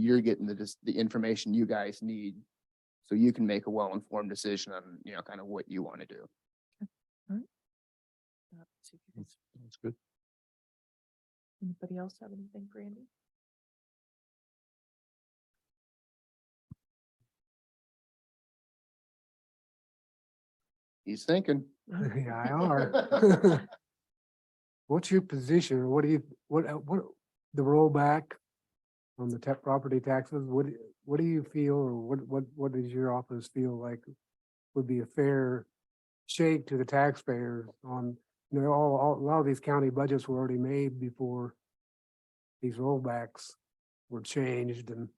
you're getting the, dis- the information you guys need. So you can make a well-informed decision on, you know, kind of what you want to do. Uh, let's see if Mm. you guys- That's good. Anybody else have anything for Andy? He's thinking. Yeah, I are. What's your position, or what do you, what, uh, what, the rollback on the tech property taxes, what, do- what do you feel, or what, what, what does your office feel like would be a fair shake to the taxpayers on, you know, all, all, a lot of these county budgets were already made before these rollbacks were changed and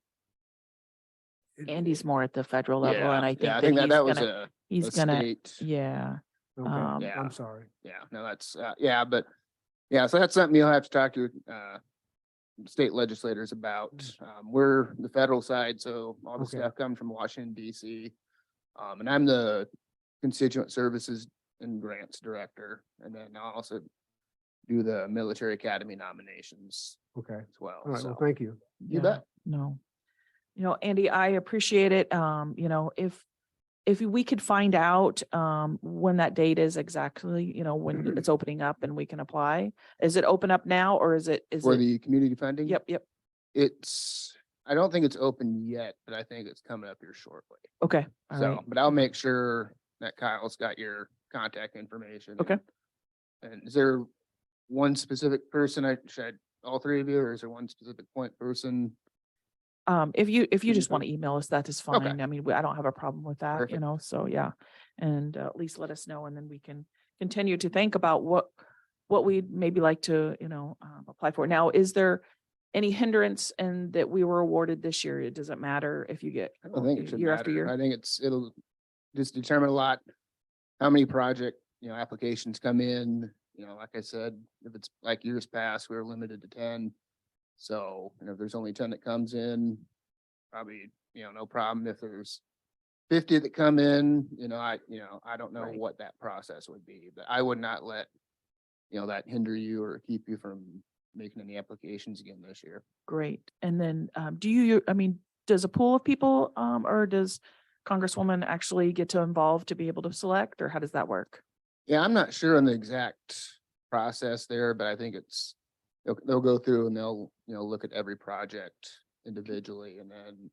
it- Andy's more at the federal level Yeah, and I yeah, think that That he's that was gonna, a, he's a gonna, state. yeah. okay, um, Yeah. I'm sorry. Yeah, no, that's, uh, yeah, but, yeah, so that's something you'll have to talk to, uh, state legislators about. Um, we're the federal side, so all the Mm. Okay. stuff comes from Washington DC. Um, and I'm the constituent services and grants director, and then I also do the military academy nominations Okay, as well, all right, well, so. thank you. You Yeah, bet. No. You know, Andy, I appreciate it. Um, you know, if, if we could find out, um, when that date is exactly, you know, Mm-hmm. when it's opening up and we can apply. Is it open up now or is it, is For it? the community funding? Yep, yep. It's, I don't think it's open yet, but I think it's coming up here shortly. Okay. all right. So, but I'll make sure that Kyle's got your contact information. Okay. and- And is there one specific person I should, I- all three of you, or is there one specific point person? Um, if you, if Can you you just want to email us, that is Mm-hmm. Okay. fine. I mean, we- I don't have a problem with that, you Perfect. know, so yeah. And uh, at least let us know and then we can continue to think about what, what we'd maybe like to, you know, um, apply for. Now, is there any hindrance and that we were awarded this year? It doesn't matter if you get I don't think it should year after matter. year? I think it's, it'll just determine a lot, how many project, you know, applications come in, you know, like I said, if it's like years past, we were limited to ten. So, you know, if there's only ten that comes in, probably, you know, no problem. If there's fifty that come in, you know, I, you know, I don't know Right. what that process would be, but I would not let, you know, that hinder you or keep you from making any applications again this year. Great. And then, um, do you, I mean, does a pool of people, um, or does Congresswoman actually get to involve to be able to select or how does that work? Yeah, I'm not sure on the exact process there, but I think it's, they'll, they'll go through and they'll, you know, look at every project Mm-hmm. individually and then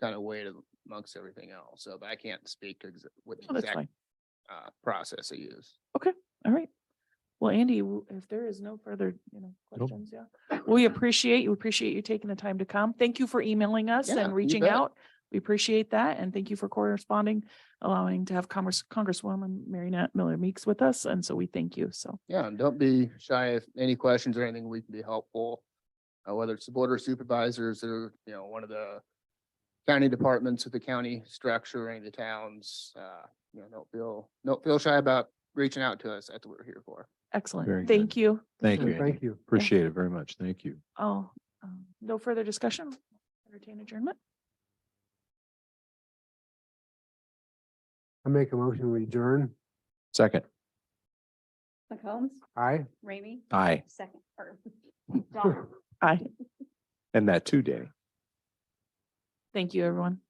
kind of weigh it amongst everything else. So, but I can't speak to exa- what Oh, the that's exact, fine. uh, process they use. All right. Well, Andy, w- if there is no further, you know, questions, yeah. We appreciate, you appreciate you taking the time to come. Thank you for emailing us Yeah, and you reaching bet. out. We appreciate that and thank you for corresponding, allowing to have Congress, Congresswoman Mary Nat Miller Meeks with us. And so we thank you. So, Yeah, and don't be shy if any questions or anything, we can be helpful. Uh, whether it's the board or supervisors or, you know, one of the county departments of the county structure, any of the towns, uh, you know, don't feel, don't feel shy about reaching out to us. That's what we're here for. Very excellent. good. Thank you. Thank you. Okay, Andy. Thank you. Appreciate it very much. Thank you. Oh, um, no further discussion? Entertain adjournment? I make a motion, we adjourn. Second. McCombs, Aye. Ramey, Aye. second, or Dahl. Aye. And that two day. Thank you, everyone.